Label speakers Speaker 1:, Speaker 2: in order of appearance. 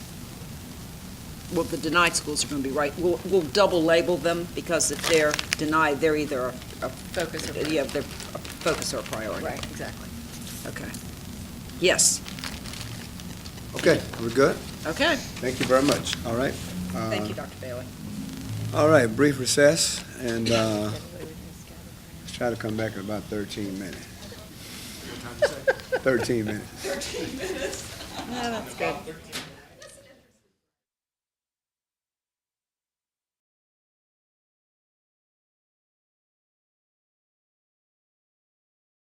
Speaker 1: well, the denied schools are going to be right, we'll, we'll double label them, because if they're denied, they're either a
Speaker 2: Focus or-
Speaker 1: Yeah, they're a focus or a priority.
Speaker 2: Right, exactly.
Speaker 1: Okay. Yes,
Speaker 3: Okay, we're good?
Speaker 1: okay.
Speaker 3: Thank you very much, all right?
Speaker 1: Thank you, Dr. Bailey.
Speaker 3: All right, brief recess, and uh, let's try to come back in about 13 minutes. 13 minutes.
Speaker 2: No, that's good.